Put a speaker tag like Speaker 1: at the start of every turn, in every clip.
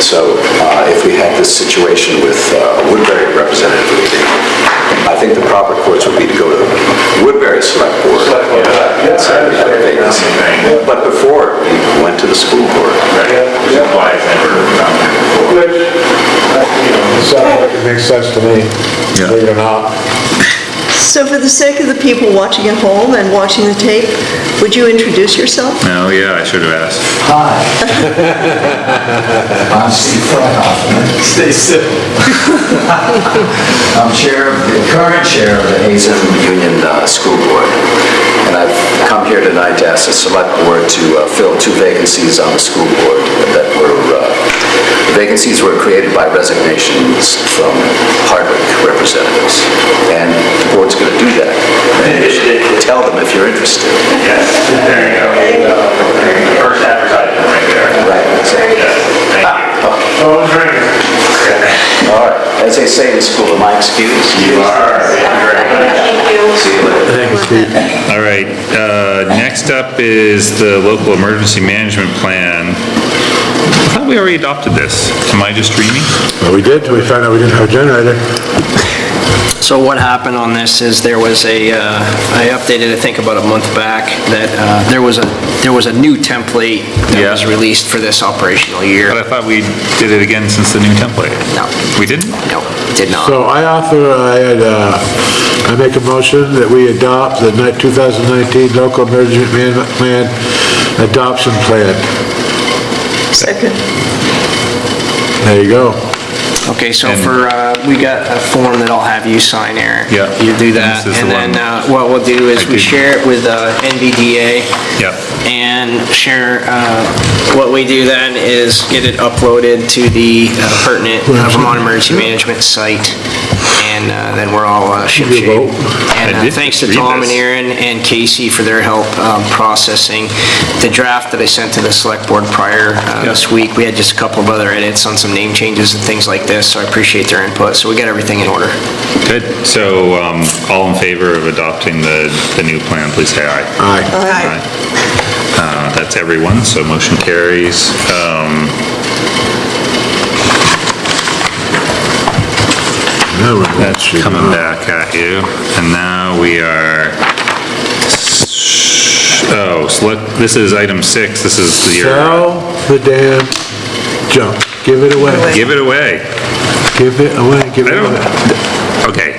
Speaker 1: So uh, if we had this situation with uh, a Woodbury representative leaving, I think the proper course would be to go to Woodbury Select Board.
Speaker 2: Yeah.
Speaker 1: and say we have a vacancy. But before, we went to the school board.
Speaker 2: Which implies
Speaker 3: Oh,
Speaker 4: Sounds like it makes sense to me,
Speaker 1: Yeah.
Speaker 4: believe it or not.
Speaker 5: So for the sake of the people watching at home and watching the tape, would you introduce yourself?
Speaker 3: Oh, yeah, I should have asked.
Speaker 6: Hi. I'm Steve Freihoff. Stay still. I'm chair, of- the current chair of the
Speaker 1: Hazen
Speaker 6: Hazen.
Speaker 1: Union uh, School Board. And I've come here tonight to ask the Select Board to uh, fill two vacancies on the school board that were, uh, the vacancies were created by resignations from Hardwick representatives. And the board's going to do that. And you should Tell them if you're interested.
Speaker 2: Yes, there you go. The First advertisement right there.
Speaker 1: Right.
Speaker 2: Yes, thank you. Oh,
Speaker 1: All right. As they say in school, am I excused?
Speaker 2: You are, thank you very much.
Speaker 1: See you later.
Speaker 3: All right, uh, next up is the local emergency management plan. I thought we already adopted this. Am I just dreaming?
Speaker 4: Well, we did, till we found out we didn't have a generator.
Speaker 7: So what happened on this is there was a, uh, I updated, I think about a month back, that uh, there was a, there was a new template that was
Speaker 3: Yeah.
Speaker 7: released for this operational year.
Speaker 3: But I thought we did it again since the new template.
Speaker 7: No.
Speaker 3: We didn't?
Speaker 7: No, did not.
Speaker 4: So I author, I, had, uh, I make a motion that we adopt the ni- 2019 local emergency management plan adoption plan.
Speaker 5: Second.
Speaker 4: There you go.
Speaker 7: Okay, so
Speaker 3: And-
Speaker 7: for, uh, we got a form that I'll have you sign, Eric.
Speaker 3: Yeah.
Speaker 7: You do that,
Speaker 3: This is the
Speaker 7: and then
Speaker 3: one.
Speaker 7: uh, what we'll do
Speaker 3: I
Speaker 7: is we
Speaker 3: did.
Speaker 7: share it with uh, NVDA.
Speaker 3: Yeah.
Speaker 7: And share, uh, what we do then is get it uploaded to the uh, pertinent uh, Vermont Emergency Management site, and uh, then we're all uh, shipshape.
Speaker 4: vote?
Speaker 7: And
Speaker 3: I
Speaker 7: uh,
Speaker 3: did
Speaker 7: thanks to
Speaker 3: read
Speaker 7: Tom and
Speaker 3: this.
Speaker 7: Aaron and Casey for their help um, processing the draft that I sent to the select board prior uh, this week. We had just a couple of other edits on some name changes and things like this, so I appreciate their input. So we got everything in order.
Speaker 3: Good. So, um, all in favor of adopting the, the new plan, please say aye.
Speaker 4: Aye.
Speaker 3: Aye. Uh, That's everyone, so motion carries. Um,
Speaker 4: Now we're-
Speaker 3: That's coming back at you. And now we are, s- oh, select, this is item six, this is your,
Speaker 4: Sell the damn junk. Give it away.
Speaker 3: give it away.
Speaker 4: Give it away, give
Speaker 3: I
Speaker 4: it
Speaker 3: don't,
Speaker 4: away.
Speaker 3: okay.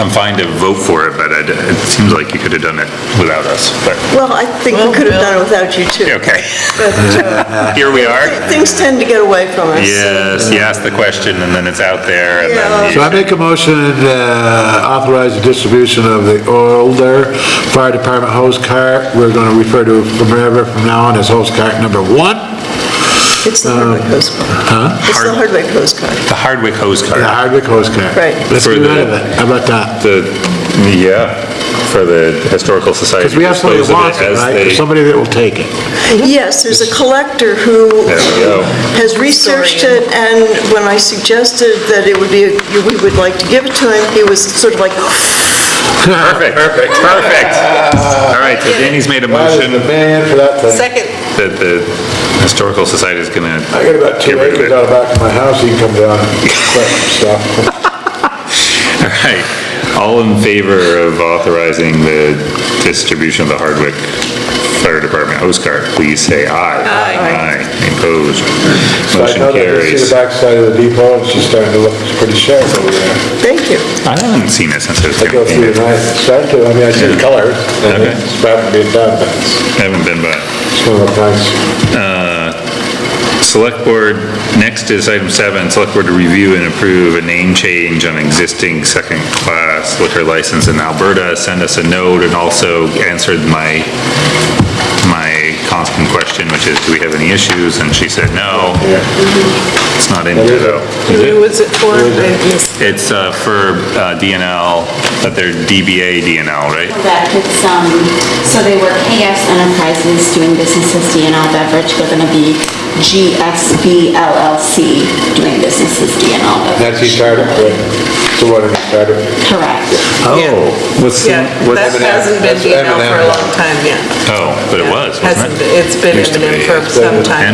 Speaker 3: I'm fine to vote for it, but I d- it seems like you could have done it without us, but,
Speaker 5: Well, I think we could have done it without you too.
Speaker 3: okay.
Speaker 5: But uh,
Speaker 3: Here we are.
Speaker 5: things tend to get away from us.
Speaker 3: Yes, you ask the question and then it's out there and then.
Speaker 4: So I
Speaker 3: you-
Speaker 4: make a motion uh, authorize the distribution of the older fire department hose cart. We're going to refer to it forever from now on as hose cart number one.
Speaker 5: It's the Hardwick Coast Guard. It's the Hardwick Coast
Speaker 3: The Hardwick hose cart.
Speaker 4: The
Speaker 5: Guard.
Speaker 4: Hardwick hose cart.
Speaker 5: Right.
Speaker 4: Let's
Speaker 3: For
Speaker 4: get rid
Speaker 3: the-
Speaker 4: of it. How about that?
Speaker 3: The, yeah, for the Historical Society.
Speaker 4: Because we have somebody
Speaker 3: dispose
Speaker 4: that
Speaker 3: of it
Speaker 4: wants it,
Speaker 3: as
Speaker 4: right?
Speaker 3: they-
Speaker 4: There's somebody that will take it.
Speaker 5: Yes, there's a collector who
Speaker 3: There we go.
Speaker 5: has researched it, and when I suggested that it would be, we would like to give it to him, he was sort of like,
Speaker 3: Perfect, perfect, perfect. All right, so Danny's made a motion that
Speaker 4: man for that thing.
Speaker 8: Second.
Speaker 3: the Historical Society is gonna
Speaker 4: I got about
Speaker 3: get
Speaker 4: two
Speaker 3: rid of it.
Speaker 4: acres out back of my house, you can come down and collect some stuff.
Speaker 3: All right, all in favor of authorizing the distribution of the Hardwick Fire Department host card, please say aye. Aye. Aye, opposed,
Speaker 4: So I
Speaker 3: motion
Speaker 4: know that you see
Speaker 3: carries.
Speaker 4: the backside of the depot, and she's starting to look pretty sharp over there.
Speaker 5: thank you.
Speaker 3: I haven't seen it since I was
Speaker 4: I go through
Speaker 3: campaigning.
Speaker 4: and I start to, I mean, I see the colors, and
Speaker 3: Okay.
Speaker 4: it's about to be done, but it's
Speaker 3: I haven't been by.
Speaker 4: one of those times.
Speaker 3: Select Board, next is item seven, Select Board to review and approve a name change on existing second-class liquor license in Alberta. Send us a note and also answered my, my constant question, which is, do we have any issues? And she said, no. It's not in here though. Is it?
Speaker 8: Was it for?
Speaker 3: It's uh, for uh, DNL, but they're DBA DNL, right?
Speaker 9: Correct, it's, um, so they were KS Enterprises doing business as DNL Beverage, they're gonna be GSB LLC doing business as DNL Beverage.
Speaker 4: That's he started, but, so what, he started?
Speaker 9: Correct.
Speaker 3: Oh, what's,
Speaker 8: Yeah, that hasn't been
Speaker 4: That's
Speaker 8: email for a
Speaker 4: M&M.
Speaker 8: long time, yeah.
Speaker 3: Oh, but it was, wasn't
Speaker 8: Hasn't,
Speaker 3: it?
Speaker 8: been- it's been
Speaker 3: Used to
Speaker 8: M&M
Speaker 3: be,
Speaker 8: for
Speaker 3: yeah.
Speaker 8: some time.